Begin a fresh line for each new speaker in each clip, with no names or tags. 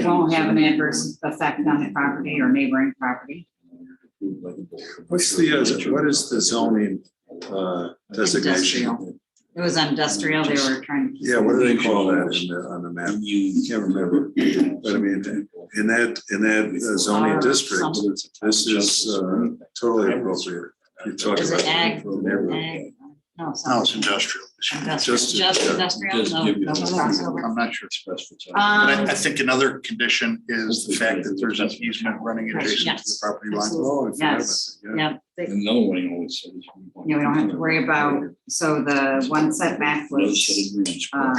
It won't have an adverse effect on the property or neighboring property.
What's the, uh, what is the zoning uh, designation?
Industrial. It was industrial, they were trying to.
Yeah, what do they call that in the, on the map? Can't remember, but I mean, in that, in that uh, zoning district, this is uh, totally appropriate. You talk
Is
about.
it ag? Ag? No,
No,
some
it's industrial.
oh, industrial,
just-
just industrial, no, no crossover.
I'm not sure. But I, I
Um,
think another condition is the fact that there's an easement running
Right,
adjacent to the
yes.
property line.
Oh, I forgot about
Yes.
that, yeah.
yeah, they-
Another one he always says.
Yeah, we don't have to worry about- so the one setback was, um,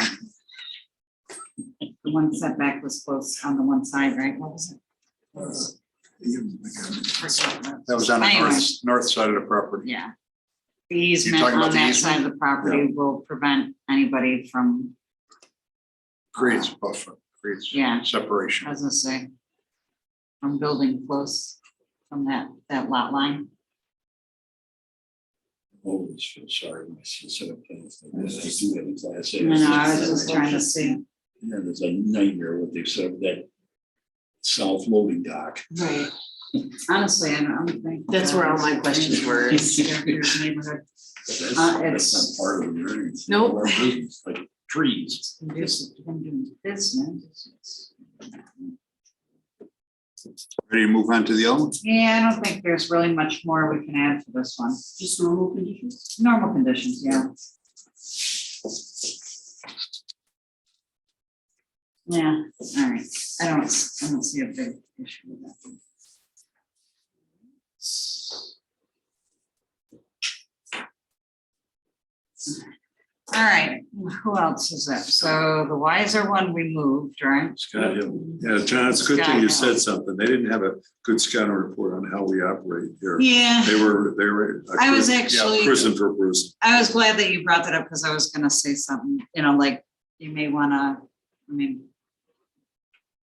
the one setback was close on the one side, right? What was it?
That was on the
Anyway.
north, north side of the property.
Yeah. The easement
talking about
on
the
that
easement?
side of the property will prevent anybody from,
Creates buffer, creates
yeah, I
separation.
was gonna say. From building close from that, that lot line.
Always feel sorry when I see set up things like this. I do that in class.
No, no, I was just trying to see.
Yeah, it's a nightmare what they said, that self-loading dock.
Right. Honestly, I don't I don't think.
That's where all my questions were, is-
There's neighborhood
But That's,
Uh,
that's
it's-
not part of the variance.
Nope.
Our business, Like trees.
conducive to them doing business.
Ready to move on to the other one?
Yeah, I don't think there's really much more we can add to this one. Just normal conditions? Normal conditions, yeah. Yeah, all right. I don't, I don't see a big issue with that. one. All right, who else is up? So the wiser one we moved, right?
Scott Hill. Yeah, John, it's a good thing you said something. They didn't have a good scouting report on how we operate here.
Yeah,
They were, they were. a
I was
prison-
actually-
Prison for prison.
I was glad that you brought that up because I was gonna say something, you know, like, you may wanna, I mean.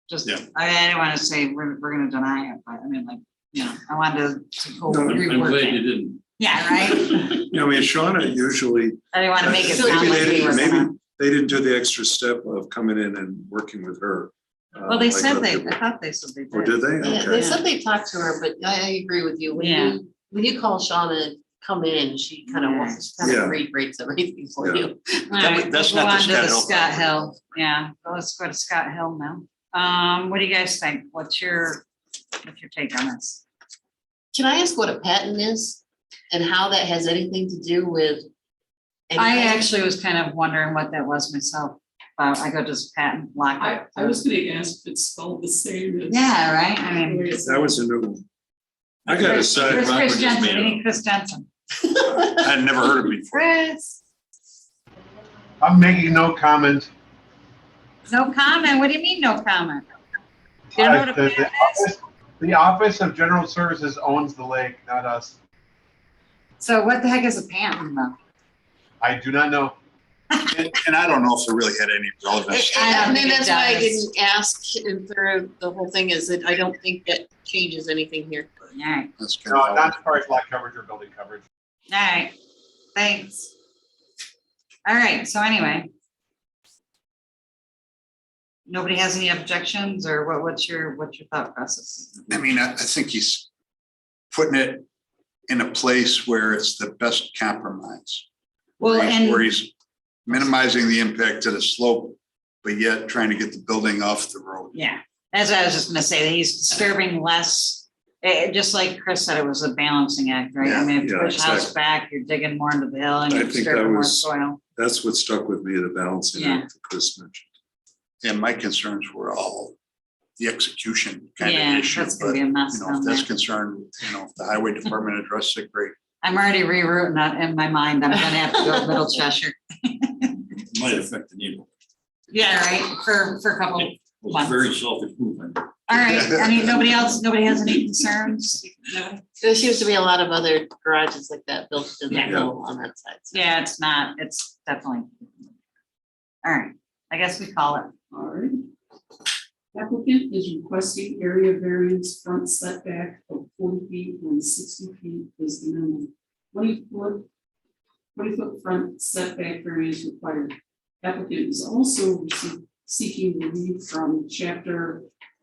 Just,
Yeah.
I I didn't wanna say we're, we're gonna deny it, but I mean, like, you know, I wanted to go
No, I'm-
reword it.
didn't.
Yeah, right?
You know, I mean, Shauna usually,
I didn't wanna make it
Maybe
sound like
they-
we were
maybe-
gonna.
they didn't do the extra step of coming in and working with her. uh,
Well, they
like
said
other
they,
people.
I thought they said they did.
Oh, did they?
Yeah,
Okay.
they said they talked to her, but I, I agree with you. When
Yeah.
you, when you call Shauna, come in, she kind of wants, kind
Yeah.
of reiterates everything for
Yeah.
you.
All
That-
right,
that's
we'll
not the
go on to
Scott Hill
Scott
property.
Hill, yeah, well, let's go to Scott Hill now. Um, what do you guys think? What's your, what's your take on this?
Can I ask what a patent is and how that has anything to do with?
I
anything?
actually was kind of wondering what that was myself. Uh, I go just patent lock.
I,
it.
I was gonna ask if it's spelled the same as.
Yeah, right, I mean.
That was a new one. I got a
Chris
side,
Chris
Rockwood just
Jensen,
made
we
it
need Chris Jensen.
I had never heard of it before.
Chris,
I'm making no comment.
no comment, what do you mean, no comment? You don't know
Uh,
what a
The the
patent is?
Office the Office of General Services owns the lake, not us.
So what the heck is a patent though?
I do not know.
And and I don't know if it really had any relevance.
I don't
I mean,
think it
that's why I
does.
didn't ask and through the whole thing is that I don't think that changes anything here.
Alright,
That's kind
No,
of-
not as far as lot coverage or building coverage.
alright, thanks. Alright, so anyway. Nobody has any objections or what, what's your, what's your thought process?
I mean, I, I think he's putting it in a place where it's the best compromise.
Well,
where he's- Where
and,
he's minimizing the impact to the slope, but yet trying to get the building off the road.
yeah, as I was just gonna say, that he's disturbing less. eh, just like Chris said, it was a balancing act, right? I
Yeah,
mean, if you
yeah,
push house back, you're digging more into the hill and
I
you're
think that
disturbing more
was-
soil.
that's what stuck with me, the balancing
Yeah.
act that Chris mentioned.
And my concerns were all the execution kind
Yeah,
of issue,
that's gonna
but
be
you
a mess
know,
down
if
there.
that's concerned, you know, if the highway department addressed it, great.
I'm already rerouting that in my mind. I'm gonna have to go to Middle Cheshire.
Might affect the neighborhood.
Yeah, right, for, for a couple. All
It's very selfish movement.
right, I mean, nobody else, nobody has any concerns? No.
There seems to be a lot of other garages like that built in
Yeah.
that hill on that side. so.
Yeah, it's not, it's definitely. All right, I guess we call it.
All right. Applicant is requesting area variance front setback of forty feet when sixty feet is the minimum. Twenty foot, twenty foot front setback variance required. Applicant is also seek- seeking relief from chapter